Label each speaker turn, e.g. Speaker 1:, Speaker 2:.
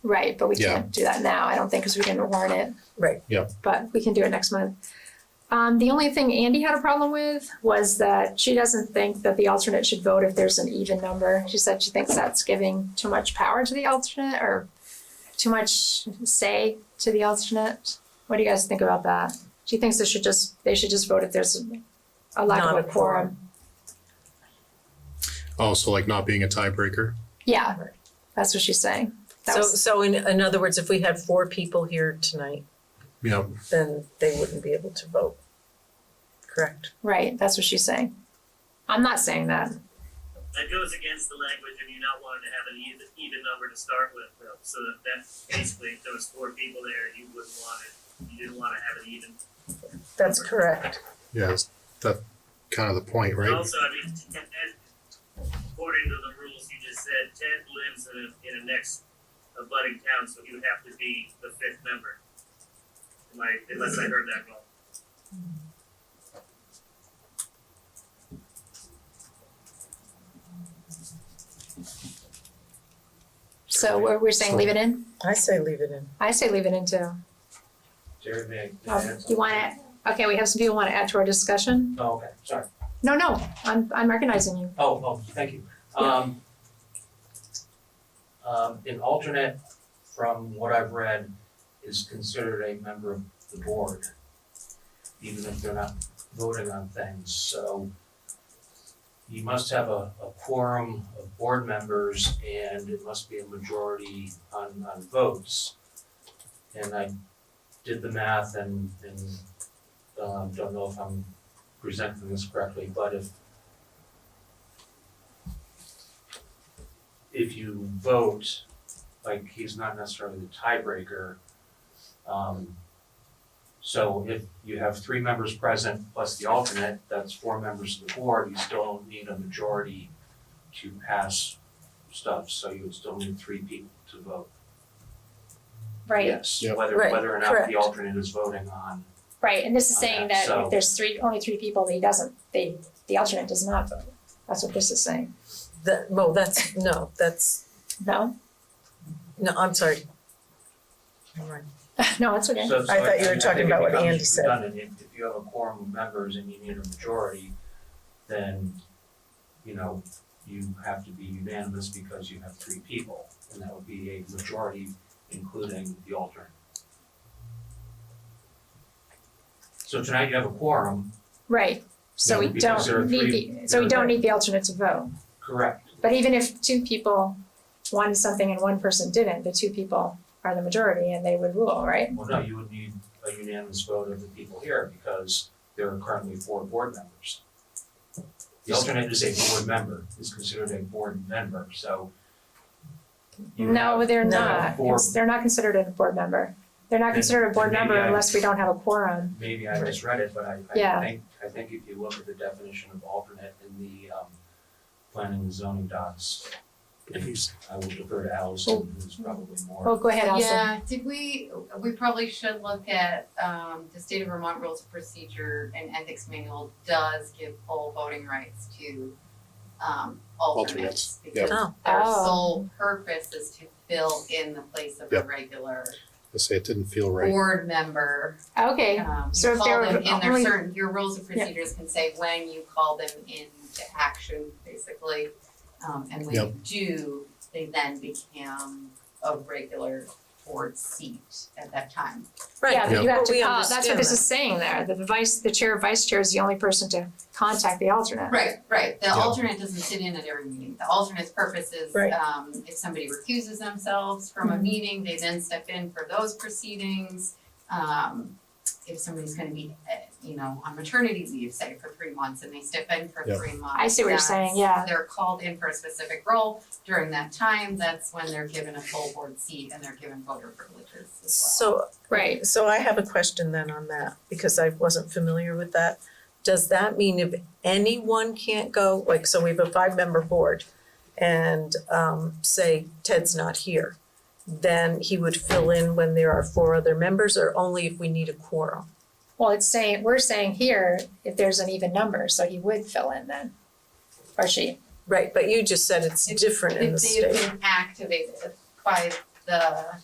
Speaker 1: Right, but we
Speaker 2: Yeah.
Speaker 1: can't do that now, I don't think, because we didn't warn it.
Speaker 3: Right.
Speaker 2: Yeah.
Speaker 1: But we can do it next month. Um, the only thing Andy had a problem with was that she doesn't think that the alternate should vote if there's an even number. She said she thinks that's giving too much power to the alternate or too much say to the alternate. What do you guys think about that? She thinks they should just, they should just vote if there's a lack of
Speaker 3: Not
Speaker 1: a
Speaker 3: a
Speaker 1: quorum.
Speaker 3: quorum.
Speaker 2: Oh, so like not being a tiebreaker?
Speaker 1: Yeah, that's what she's saying. That
Speaker 3: So,
Speaker 1: was-
Speaker 3: so in, in other words, if we had four people here tonight,
Speaker 2: Yeah,
Speaker 3: then they wouldn't be able to vote. Correct?
Speaker 1: Right, that's what she's saying. I'm not saying that.
Speaker 4: That goes against the language of you not wanting to have an even, even number to start with, though, so that, that basically, if there was four people there, you wouldn't want it, you didn't wanna have an even.
Speaker 3: That's correct.
Speaker 2: yeah, that's- that kind of the point,
Speaker 4: And
Speaker 2: right?
Speaker 4: also, I mean, Ted, according to the rules you just said, Ted lives in a, in a next abutting town, so he would have to be the fifth member. Am I, unless I heard that wrong.
Speaker 1: So we're, we're saying leave it in?
Speaker 3: I say leave it in.
Speaker 1: I say leave it in too.
Speaker 5: Jared, may I- may I
Speaker 1: Um,
Speaker 5: add
Speaker 1: You want
Speaker 5: something?
Speaker 1: to, okay, we have some people want to add to our discussion?
Speaker 5: Oh, okay, sorry.
Speaker 1: No, no, I'm, I'm recognizing you.
Speaker 5: Oh, oh, thank you. Um, um, an alternate, from what I've read, is considered a member of the board, even if they're not voting on things, so you must have a, a quorum of board members and it must be a majority on, on votes. And I did the math and, and, um, don't know if I'm presenting this correctly, but if if you vote, like he's not necessarily the tiebreaker. Um, so if you have three members present plus the alternate, that's four members of the board, you still need a majority to pass stuff, so you would still need three people to vote. Yes,
Speaker 2: Yep.
Speaker 5: whether,
Speaker 3: Right,
Speaker 5: whether or not
Speaker 3: correct.
Speaker 5: the alternate is voting on,
Speaker 1: right, and this is
Speaker 5: Okay,
Speaker 1: saying that
Speaker 5: so-
Speaker 1: if there's three, only three people, he doesn't, they, the alternate does not vote. That's what this is saying.
Speaker 3: That, no, that's, no, that's,
Speaker 1: No?
Speaker 3: no, I'm sorry. Never mind.
Speaker 1: No, it's okay.
Speaker 5: So- so
Speaker 3: I thought you were
Speaker 5: mean,
Speaker 3: talking
Speaker 5: I think it
Speaker 3: about what
Speaker 5: becomes
Speaker 3: Andy said.
Speaker 5: redundant. If, if you have a quorum of members and you need a majority, then, you know, you have to be unanimous because you have three people, and that would be a majority including the alternate. So tonight you have a quorum,
Speaker 1: Right, so
Speaker 2: Yeah,
Speaker 1: we
Speaker 5: because
Speaker 1: don't
Speaker 5: there are
Speaker 1: need,
Speaker 5: three-
Speaker 1: the so we
Speaker 5: there
Speaker 1: don't
Speaker 5: are-
Speaker 1: need the alternate to vote.
Speaker 5: correct?
Speaker 1: But even if two people wanted something and one person didn't, the two people are the majority and they would rule, right?
Speaker 5: Well, no, you would need a unanimous vote of the people here because there are currently four board members. The alternate is a board member, is considered a board member, so you
Speaker 1: No,
Speaker 5: have-
Speaker 1: they're
Speaker 3: No.
Speaker 1: not.
Speaker 5: Four.
Speaker 1: It's- They're not considered a board member. They're not
Speaker 5: Then-
Speaker 1: considered a board
Speaker 5: then
Speaker 1: member
Speaker 5: maybe I-
Speaker 1: unless we don't have a quorum.
Speaker 5: maybe I misread it, but I
Speaker 1: Yeah.
Speaker 5: I think, I think if you look at the definition of alternate in the um planning and zoning docs,
Speaker 2: He's-
Speaker 5: I will defer to Allison, who's probably
Speaker 1: Well,
Speaker 5: more,
Speaker 1: Oh, go ahead, Allison.
Speaker 6: Yeah, did we, we probably should look at, um, the state of Vermont Rules of Procedure and Ethics Manual does give full voting rights to, um,
Speaker 2: Alternates,
Speaker 6: alternates.
Speaker 2: yeah.
Speaker 6: Because
Speaker 3: Oh.
Speaker 6: their
Speaker 1: Oh.
Speaker 6: sole purpose is to fill in the place of
Speaker 2: Yeah.
Speaker 6: a regular
Speaker 2: I say it didn't feel right.
Speaker 6: board member.
Speaker 1: Okay,
Speaker 6: Um,
Speaker 1: So
Speaker 6: you
Speaker 1: if there
Speaker 6: call them
Speaker 1: were
Speaker 6: in, there's
Speaker 1: only-
Speaker 6: certain, your rules of procedures can say when you call them into action, basically. Um, and when
Speaker 2: Yep.
Speaker 6: you do, they then become a regular board seat at that
Speaker 1: yeah,
Speaker 6: time.
Speaker 3: Right,
Speaker 1: but you have
Speaker 3: But
Speaker 1: to
Speaker 3: we
Speaker 1: call, that's what
Speaker 3: understand
Speaker 1: this
Speaker 3: that.
Speaker 1: is saying there. The vice, the chair, vice chair is the only person to contact the alternate.
Speaker 6: Right, right, the
Speaker 2: Yeah.
Speaker 6: alternate doesn't sit in at every meeting, the alternate's purpose is,
Speaker 3: Right.
Speaker 6: um, if somebody recuses themselves from
Speaker 1: Mm-hmm.
Speaker 6: a meeting, they then step in for those proceedings. Um, if somebody's gonna be, uh, you know, on maternity leave, say, for three months, and they step in for
Speaker 2: Yeah.
Speaker 6: three months.
Speaker 1: I see what you're
Speaker 6: that's-
Speaker 1: saying, yeah.
Speaker 6: They're called in for a specific role, during that time, that's when they're given a full board seat and they're given voter privileges as well.
Speaker 3: So,
Speaker 1: Right.
Speaker 3: so I have a question then on that, because I wasn't familiar with that. Does that mean if anyone can't go, like, so we have a five-member board, and, um, say Ted's not here, then he would fill in when there are four other members, or only if we need a quorum?
Speaker 1: Well, it's saying, we're saying here, if there's an even number, so he would fill in then, or she.
Speaker 3: Right, but you just said it's different in the
Speaker 6: If
Speaker 3: state.
Speaker 6: they've been activated by the